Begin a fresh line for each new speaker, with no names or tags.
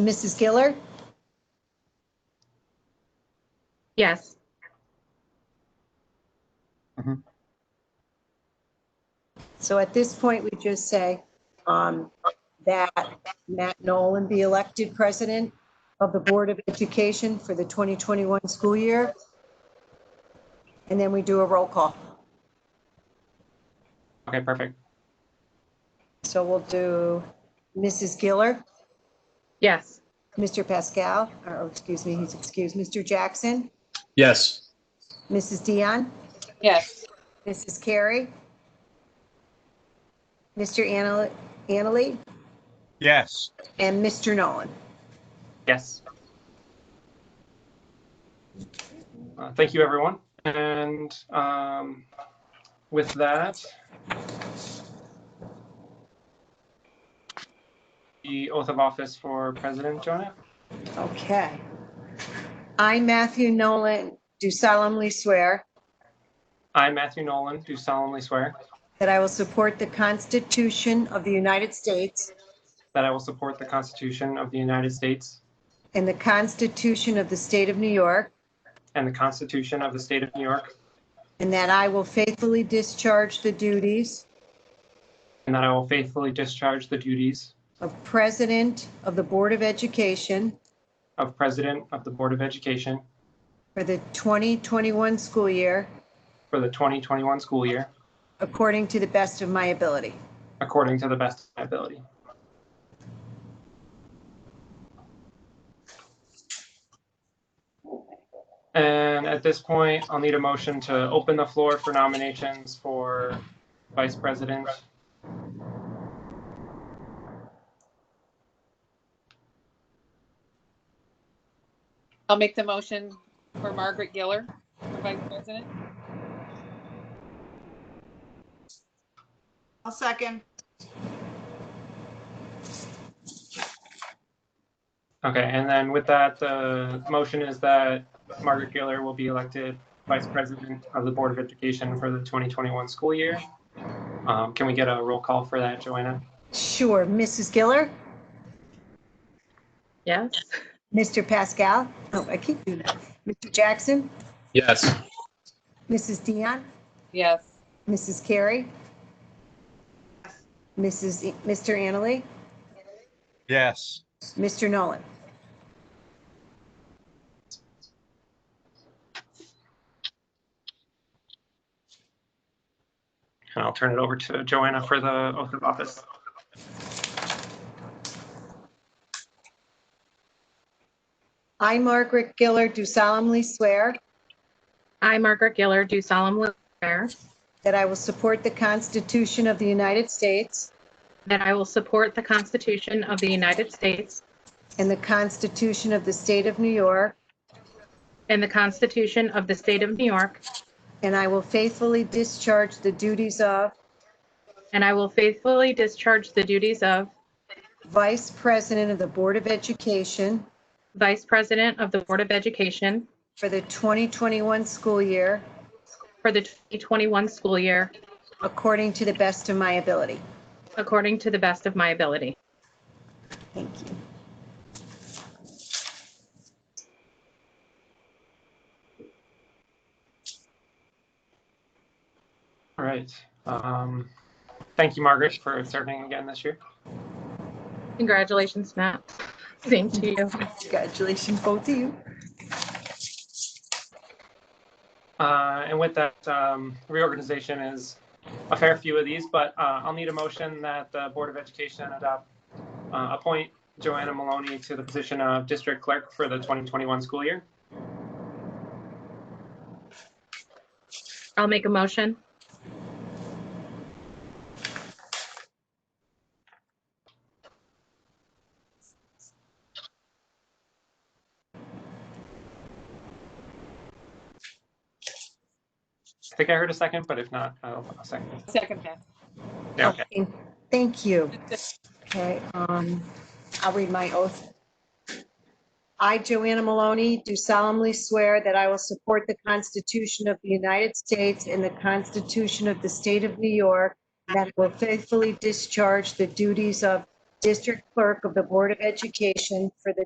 Mrs. Giller?
Yes.
So at this point, we just say um, that Matt Nolan be elected president of the Board of Education for the 2021 school year. And then we do a roll call.
Okay, perfect.
So we'll do Mrs. Giller,
Yes.
Mr. Pascal, or excuse me, he's excused, Mr. Jackson,
Yes.
Mrs. Dion,
Yes.
Mrs. Carey, Mr. Anna- Annaly,
Yes,
and Mr. Nolan.
Yes. Uh, thank you, everyone. And um, with that, the oath of office for President Jonah.
Okay. I, Matthew Nolan, do solemnly swear
I, Matthew Nolan, do solemnly swear
that I will support the Constitution of the United States
that I will support the Constitution of the United States
and the Constitution of the State of New York,
and the Constitution of the State of New York,
and that I will faithfully discharge the duties
and that I will faithfully discharge the duties
of President of the Board of Education
of President of the Board of Education
for the 2021 school year
for the 2021 school year
according to the best of my ability.
according to the best of my ability. And at this point, I'll need a motion to open the floor for nominations for vice president.
I'll make the motion for Margaret Giller for vice president.
I'll second.
Okay, and then with that, the motion is that Margaret Gaylor will be elected vice president of the Board of Education for the 2021 school year. Um, Can we get a roll call for that, Joanna?
Sure. Mrs. Giller?
Yes.
Mr. Pascal? Oh, I keep doing that. Mr. Jackson?
Yes.
Mrs. Dion?
Yes.
Mrs. Carey? Mrs., E- Mr. Annaly?
yes,
Mr. Nolan?
And I'll turn it over to Joanna for the oath of office.
I, Margaret Giller, do solemnly swear
I, Margaret Giller, do solemnly swear
that I will support the Constitution of the United States
that I will support the Constitution of the United States
and the Constitution of the State of New York,
and the Constitution of the State of New York,
and I will faithfully discharge the duties of
and I will faithfully discharge the duties of
Vice President of the Board of Education
Vice President of the Board of Education
for the 2021 school year
for the 2021 school year
according to the best of my ability.
according to the best of my ability.
Thank you.
All right. Um, Thank you, Margaret, for serving again this year.
Congratulations, Matt. Same to you.
Congratulations, both of you.
Uh, And with that, um, reorganization is a fair few of these, but uh, I'll need a motion that the Board of Education adopt, uh, appoint Joanna Maloney to the position of District Clerk for the 2021 school year.
I'll make a motion.
I think I heard a second, but if not, I'll I'll second.
Second that.
Yeah, okay.
Okay, Thank you. Okay, um, I'll read my oath. I, Joanna Maloney, do solemnly swear that I will support the Constitution of the United States and the Constitution of the State of New York, and that I will faithfully discharge the duties of District Clerk of the Board of Education for the